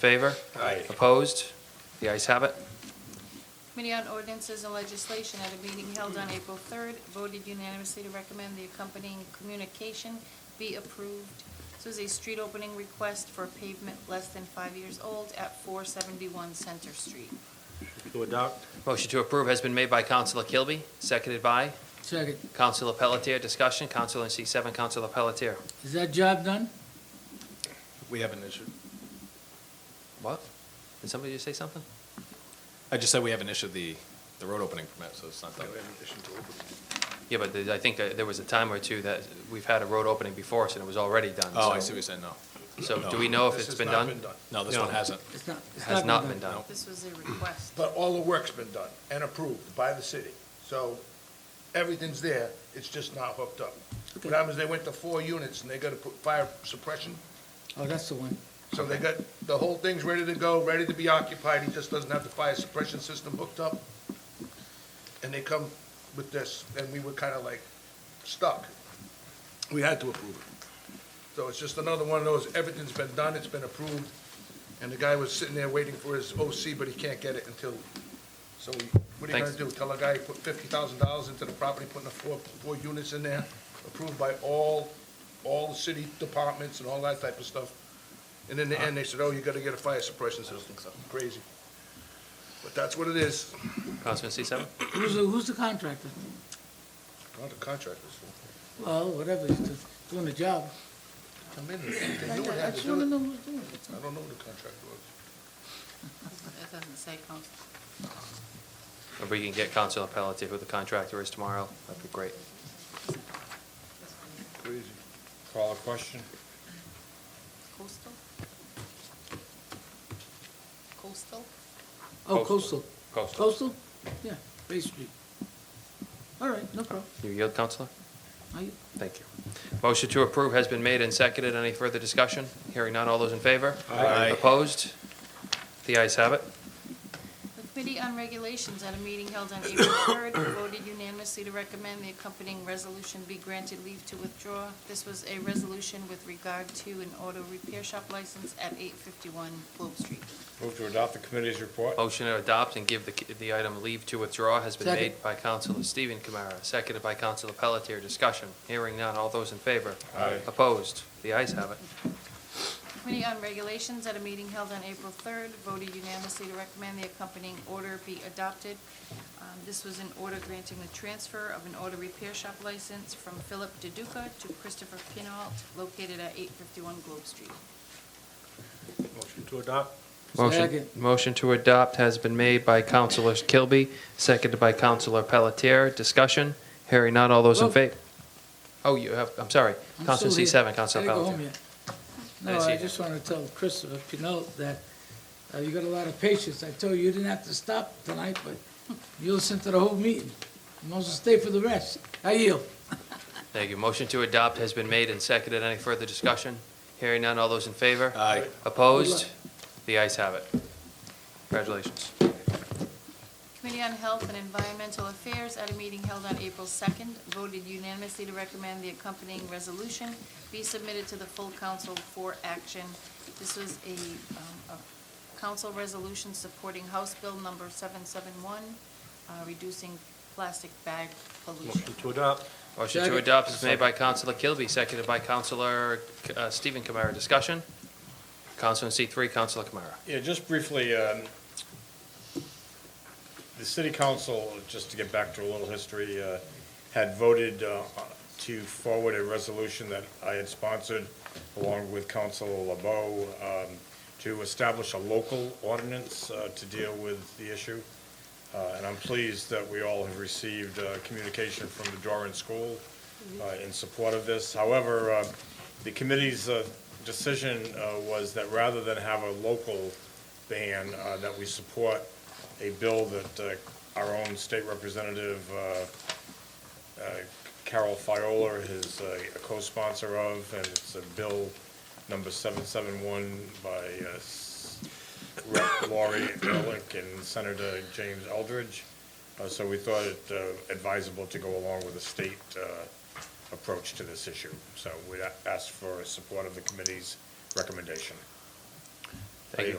Favor? Aye. Opposed? The ayes have it. Committee on Ordinances and Legislation at a meeting held on April 3rd voted unanimously to recommend the accompanying communication be approved. This was a street opening request for pavement less than five years old at 471 Center Street. To adopt? Motion to approve has been made by Counselor Kilby, seconded by Second, Counselor Pelletier. Discussion, Counselor in seat seven, Counselor Pelletier. is that job done? We have an issue. What? Did somebody just say something? I just said we haven't issued the, the road opening permit, so it's not done. Yeah, but I think that there was a time or two that we've had a road opening before us and it was already done. Oh, I so- see what you're saying, no. So do we know if it's been done? No, this No. one hasn't. It's not, It it's Has not been No. done. This was a request. But all the work's been done and approved by the city. So everything's there, it's just not hooked up. What happens, they went to four units and they gotta put fire suppression, Oh, that's the one. so they got, the whole thing's ready to go, ready to be occupied, he just doesn't have the fire suppression system hooked up. And they come with this, and we were kinda like stuck. We had to approve it. So it's just another one of those, everything's been done, it's been approved, and the guy was sitting there waiting for his OC, but he can't get it until, so what are you gonna Thanks. do? Tell a guy he put fifty thousand dollars into the property, putting the four, four units in there, approved by all, all the city departments and all that type of stuff. And in the end, they said, oh, you gotta get a fire suppression system. Crazy. But that's what it is, Counselor in seat seven? Who's, the- who's the contractor? Not the contractors. Well, whatever, he's do- doing the job. Come in, they I knew what had to just do wanna it. know who's doing it. I don't know who the contractor was. That doesn't say, Council. If we can get Counselor Pelletier who the contractor is tomorrow, that'd be great. Crazy. Call a question? Coastal? Coastal? Oh, Coastal. coastal. Coastal. Coastal? Yeah, Bay Street. All right, no problem. You yield, Counselor? I, Thank you. Motion to approve has been made and seconded. Any further discussion? Hearing none, all those in favor? Aye. Opposed? The ayes have it. The Committee on Regulations, at a meeting held on April 3rd, voted unanimously to recommend the accompanying resolution be granted leave to withdraw. This was a resolution with regard to an auto repair shop license at 851 Globe Street. Move to adopt the committee's report? Motion to adopt and give the, the item leave to withdraw has been Second. made by Counselor Stephen Kamara, seconded by Counselor Pelletier. Discussion. Hearing none, all those in favor? Aye. Opposed? The ayes have it. Committee on Regulations, at a meeting held on April 3rd, voted unanimously to recommend the accompanying order be adopted. Um, This was an order granting the transfer of an auto repair shop license from Philip DeDuca to Christopher Pinault, located at 851 Globe Street. Motion to adopt? Motion, Second. motion to adopt has been made by Counselor Kilby, seconded by Counselor Pelletier. Discussion. Hearing none, all those in Whoa. favor? Oh, you have, I'm sorry. I'm Counselor still here. C seven, Counselor I didn't go Pelletier. home yet. I No, see I that. just wanna tell Christopher Pinot that, uh, you got a lot of patience. I told you, you didn't have to stop tonight, but you listened to the whole meeting. You must stay for the rest. I yield. Thank you. Motion to adopt has been made and seconded. Any further discussion? Hearing none. All those in favor? Aye. Opposed? The ayes have it. Congratulations. Committee on Health and Environmental Affairs, at a meeting held on April 2nd, voted unanimously to recommend the accompanying resolution be submitted to the full council for action. This was a, um, a council resolution supporting House Bill Number 771, uh, reducing plastic bag pollution. To adopt. Motion to Second. adopt is made by Counselor Kilby, seconded by Counselor uh, Stephen Kamara. Discussion? Counselor in seat three, Counselor Kamara. Yeah, just briefly, um, the city council, just to get back to a little history, uh, had voted uh, to forward a resolution that I had sponsored along with Councilor LeBeau um, to establish a local ordinance uh, to deal with the issue. Uh, And I'm pleased that we all have received uh, communication from the Doran School uh, in support of this. However, uh, the committee's uh, decision uh, was that rather than have a local ban, uh, that we support a bill that uh, our own state representative, uh, uh, Carol Fiola is uh, a co-sponsor of, and it's a bill number 771 by uh, S- Rep. Lori Ehrlich and Senator James Eldridge. Uh, So we thought it uh, advisable to go along with the state uh, approach to this issue. So we a- ask for support of the committee's recommendation. Thank you.